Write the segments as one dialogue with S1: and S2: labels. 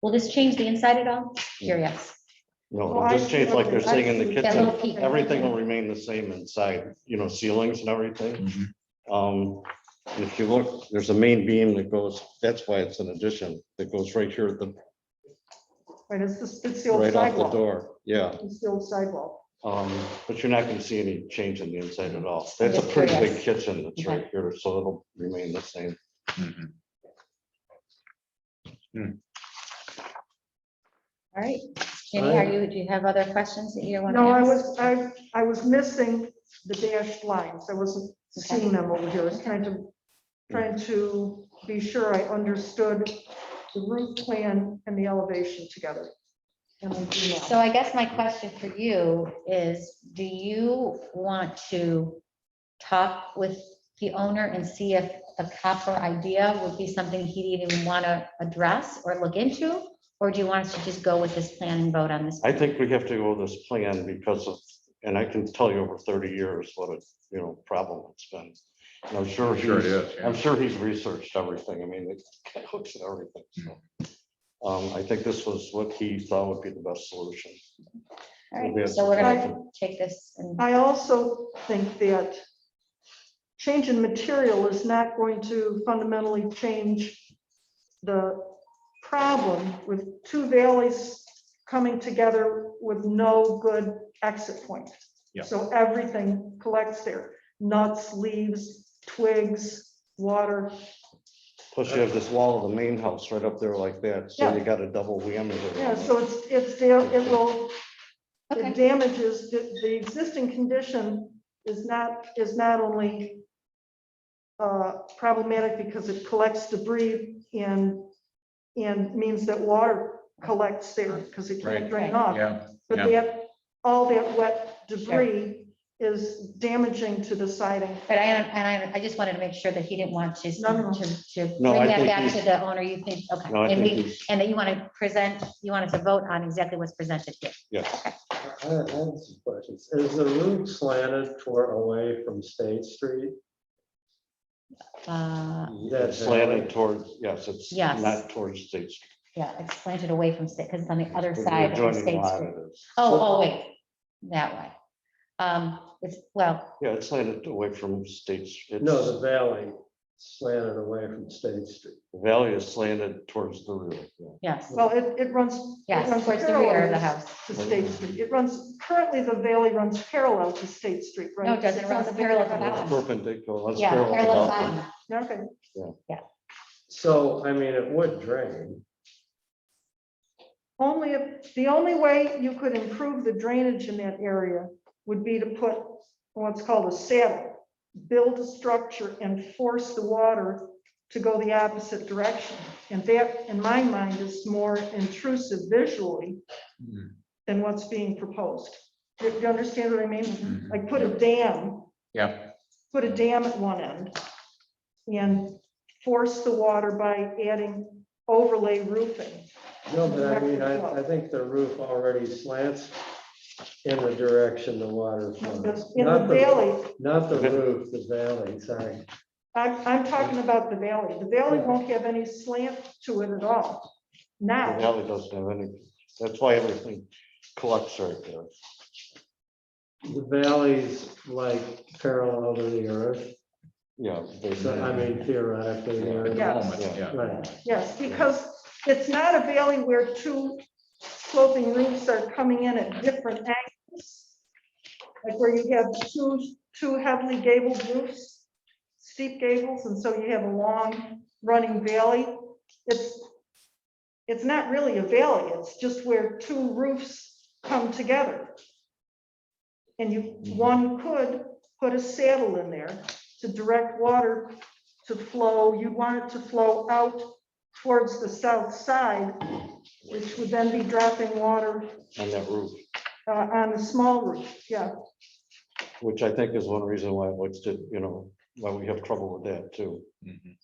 S1: Will this change the inside at all? Sure,
S2: Mm.
S1: yes.
S2: No,
S3: Well,
S2: just
S3: I-
S2: change like they're saying in the
S3: I-
S1: That
S2: kitchen,
S1: little peak.
S2: everything will remain the same inside, you know, ceilings and everything.
S4: Mhm.
S2: Um, if you look, there's a main beam that goes, that's why it's an addition, that goes right here, at the,
S3: Right, it's the, it's the old
S2: right off the
S3: sidewalk.
S2: door, yeah.
S3: It's the old sidewalk.
S2: Um, but you're not gonna see any change in the inside at all. That's a
S1: Yes,
S2: pretty
S1: yes.
S2: big kitchen that's right here, so it'll remain the same.
S4: Mhm.
S1: All right. Jenny, are you, do you have other questions that you want to
S3: No, I
S1: ask?
S3: was, I, I was missing the dashed lines. I wasn't seeing them over here. I was trying to, trying to be sure I understood the roof plan and the elevation together. And I do now.
S1: So I guess my question for you is, do you want to talk with the owner and see if the copper idea would be something he'd even want to address or look into? Or do you want us to just go with this plan and vote on this?
S2: I think we have to go with this plan because of, and I can tell you over thirty years what a, you know, problem it's been. And I'm sure
S4: Sure it
S2: he's,
S4: is. yeah.
S2: I'm sure he's researched everything. I mean, it looks at everything, so. Um, I think this was what he thought would be the best solution.
S1: All right, so we're gonna take this and,
S3: I also think that change in material is not going to fundamentally change the problem with two valleys coming together with no good exit point.
S4: Yeah.
S3: So everything collects there, nuts, leaves, twigs, water.
S2: Plus you have this wall of the main house right up there like that, so you got a double whammy. there.
S3: Yeah, so it's, it's, da- it will,
S1: okay,
S3: it damages, the, the existing condition is not, is not only uh, problematic because it collects debris and, and means that water collects there because it
S4: Right.
S3: can't drain off.
S4: Yeah,
S3: But
S4: yeah.
S3: that, all that wet debris is damaging to the siding.
S1: but I, and I, I just wanted to make sure that he didn't want to,
S3: No, no.
S1: to, to
S2: No,
S1: bring
S2: I
S1: that
S2: think
S1: back
S2: he's-
S1: to the owner, you think, okay.
S2: No, I
S1: And
S2: think
S1: we,
S2: he's-
S1: and that you want to present, you want us to vote on exactly what's presented here.
S5: I I have some questions. Is the roof slanted toward away from State Street?
S1: Uh,
S5: That
S2: It's slanted towards, yes, it's
S1: Yes.
S2: not towards State Street.
S1: Yeah, it's slanted away from state, because it's on the other
S2: It's the
S1: side of
S2: adjoining
S1: State
S2: lot
S1: Street.
S2: it is.
S1: Oh, oh, wait, that way. Um, it's, well,
S2: Yeah, it's slanted away from State. Street.
S5: No, the valley slanted away from State Street.
S2: The Valley is slanted towards the rear. yeah.
S1: yes,
S3: Well, it, it runs. it
S1: yes,
S3: runs
S1: towards the rear of the
S3: parallel
S1: house.
S3: To State Street. It runs, currently the valley runs parallel to State Street, right?
S1: No, it doesn't. It runs parallel to the house.
S2: It's Perpendicular. let's
S1: Yeah,
S2: parallel
S1: parallel
S2: about
S1: line.
S2: it.
S3: Okay.
S5: So, I mean, it would drain.
S3: Only, if the only way you could improve the drainage in that area would be to put what's called a saddle. Build a structure and force the water to go the opposite direction. And that, in my mind, is more intrusive visually
S4: Mhm.
S3: than what's being proposed. Do you understand what I mean? Like put a dam,
S4: mm-hmm. Yeah,
S3: put a dam at one end and force the water by adding overlay roofing.
S5: No, but I mean, I, I think the roof already slants in the direction the water flows.
S3: In the
S5: Not
S3: valley,
S5: Not the roof, the valley, sorry.
S3: I'm, I'm talking about the valley. The valley won't have any slant to it at all.
S2: The
S3: Now,
S2: valley doesn't have any, that's why everything collects right there.
S5: The valley's like parallel to the earth,
S2: Yeah.
S5: so I
S2: basically.
S5: mean theoretically.
S2: Yeah.
S5: they're-
S3: Yeah.
S4: moment,
S2: Yeah.
S4: yeah.
S5: Right.
S3: yes, because it's not a valley where two sloping roofs are coming in at different angles. Like where you have two, two heavily gabled roofs, steep gables, and so you have a long running valley. It's, it's not really a valley. It's just where two roofs come together. And you, one could put a saddle in there to direct water to flow. You want it to flow out towards the south side, which would then be dropping water
S2: On that roof,
S3: uh, on the small roof, yeah.
S2: which I think is one reason why what's did, you know, why we have trouble with that too.
S4: Mhm.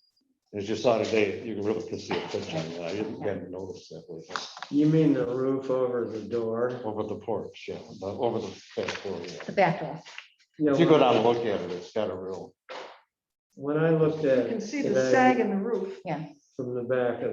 S2: As you saw today, you really can see a picture. of it. I didn't even notice that was
S5: You mean the roof over the door?
S2: over the porch, yeah, but over the back door. yeah.
S1: The back door.
S5: Yeah,
S2: If you go down and look at it, it's got a real.
S5: When I looked
S3: You
S5: at.
S3: can see
S5: it
S3: the
S5: today
S3: sag in the roof.
S5: From the back of